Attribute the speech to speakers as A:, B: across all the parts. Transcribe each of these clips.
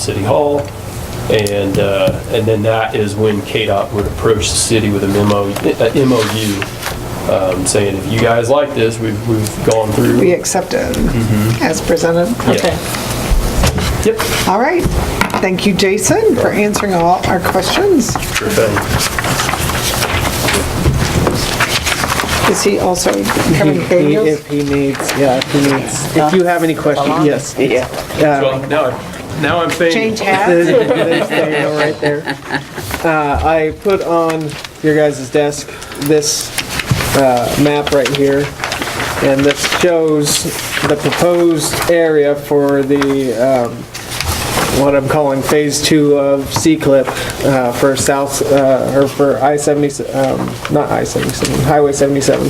A: City Hall. And, uh, and then that is when KDOT would approach the city with a memo, a MOU, um, saying, if you guys like this, we've, we've gone through.
B: We accept it as presented.
A: Yeah. Yep,
B: All right. Thank you, Jason, for answering all our questions.
A: sure
C: Um,
A: thing.
B: Is he also Kevin
C: If he-
B: Daniels?
C: If he needs, yeah, if he needs, if you have any questions, yes.
A: Well, now, I- now I'm thinking.
B: Change hats?
C: There's- there's Daniel right there. Uh, I put on your guys' desk this uh, map right here, and this shows the proposed area for the, um, what I'm calling Phase Two of C-CLIP uh, for South, uh, or for I-70, um, not I-77, Highway 77.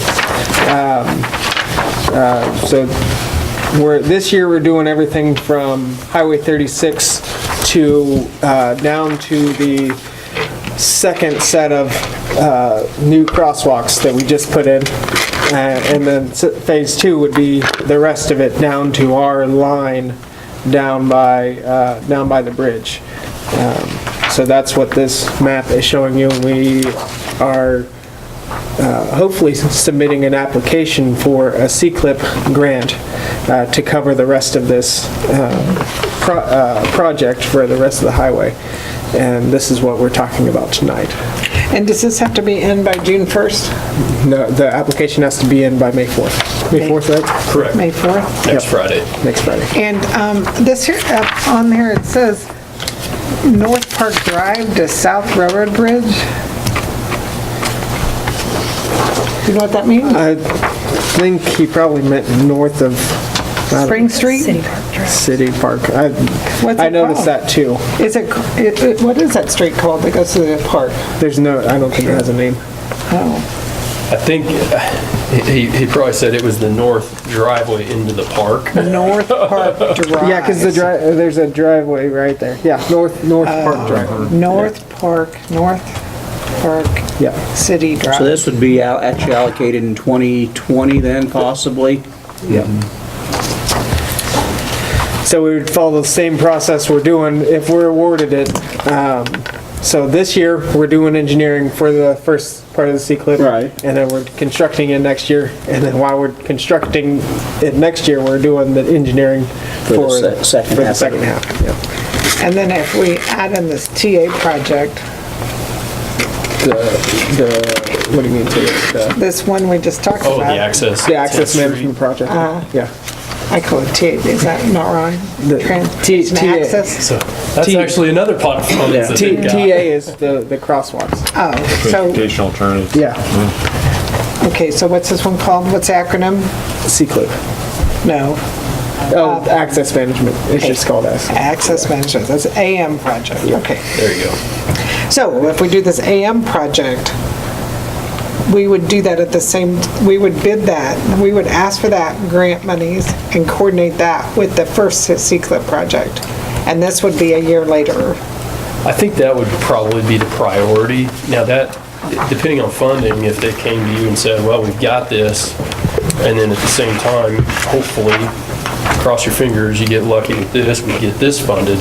C: uh, So we're, this year, we're doing everything from Highway 36 to, uh, down to the second set of uh, new crosswalks that we just put in. Uh, And then s- Phase 2 would be the rest of it down to our line down by, uh, down by the bridge. Um, So that's what this map is showing you. We are hopefully submitting an application for a C-CLIP grant uh, to cover the rest of this uh, pro- uh, project for the rest of the highway. And this is what we're talking about tonight.
B: And does this have to be in by June 1st,
C: No, The application has to be in by May 4th. May 4th, right?
B: May
A: Correct,
B: 4th?
A: next Friday.
C: Next Friday.
B: And um, this here, up on there, it says North Park Drive to South Railroad Bridge. You know what that means?
C: I think he probably meant north of
B: Spring Street?
D: City Park Drive.
C: City Park. I
B: What's
C: I
B: it
C: noticed
B: called?
C: that too.
B: Is it, it- it- what is that street called that goes to the park?
C: There's no, I don't think it has a name.
B: Oh,
A: I think uh, he, he probably said it was the north driveway into the park.
B: North Park Drive.
C: Yeah, because the drive, there's a driveway right there. Yeah, north, north Park Drive.
B: North Park, North Park
C: Yeah.
B: City Drive.
E: So this would be al- actually allocated in 2020 then, possibly?
C: So we would follow the same process we're doing if we're awarded it. Um, So this year, we're doing engineering for the first part of the C-CLIP.
E: Right.
C: And then we're constructing it next year, and then while we're constructing it next year, we're doing the engineering
E: the
C: for.
E: se- second
C: for the
E: half of
C: second
E: it.
C: half, yeah.
B: And then if we add in this TA project,
C: The, the, what do you mean, to it? The-
B: this one we just talked
A: Oh,
B: about.
A: the access.
C: the access
A: to the
C: management project? Yeah.
B: I call it TA, is that not wrong?
C: The
B: Transportation
C: T- TA.
B: access?
A: street. So That's
C: T-
A: actually another pot of funds that
C: T-
A: they've got.
C: TA is the, the crosswalks.
B: Oh, so,
F: Transportation alternatives.
C: Yeah,
B: okay, so what's this one called? What's the acronym?
C: C-CLIP.
B: No,
C: Oh, access management, it's just called S.
B: Access Management, that's AM project, okay.
A: There you go.
B: So if we do this AM project, we would do that at the same, we would bid that, and we would ask for that grant monies and coordinate that with the first C-CLIP project. And this would be a year later.
A: I think that would probably be the priority. Now that, depending on funding, if they came to you and said, well, we've got this, and then at the same time, hopefully, cross your fingers, you get lucky with this, we get this funded,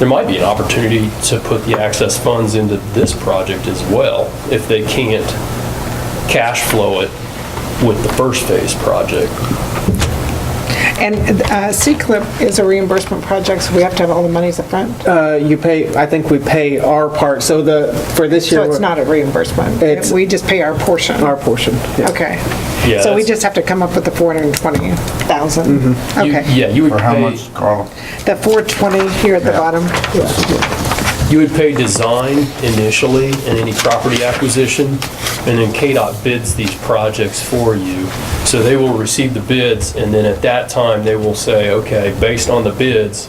A: there might be an opportunity to put the access funds into this project as well, if they can't cash flow it with the first phase project.
B: And uh, C-CLIP is a reimbursement project, so we have to have all the monies upfront?
C: Uh, you pay, I think we pay our part, so the, for this year.
B: So it's not a reimbursement?
C: It's-
B: We just pay our portion?
C: Our portion, yeah.
B: Okay.
A: Yeah,
B: So we
A: that's-
B: just have to come up with the 420,000?
C: Mm-hmm.
A: You-
B: Okay.
A: Yeah, you would
F: Or how
A: pay-
F: much, Carl?
B: The 420 here at the bottom?
A: You would pay design initially and any property acquisition, and then KDOT bids these projects for you. So they will receive the bids, and then at that time, they will say, okay, based on the bids,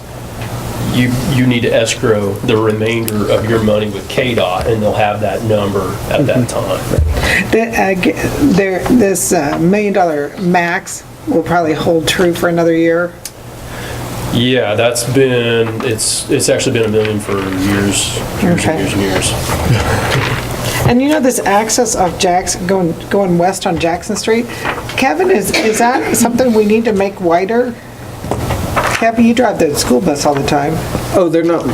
A: you, you need to escrow the remainder of your money with KDOT, and they'll have that number at that time.
B: The, uh, g- there, this uh, million dollar max will probably hold true for another year.
A: Yeah, that's been, it's, it's actually been a million for years, years
B: Okay.
A: and years and years.
B: And you know this access of Jackson, going, going west on Jackson Street? Kevin, is, is that something we need to make wider? Kevin, you drive the school bus all the time.
C: Oh, they're not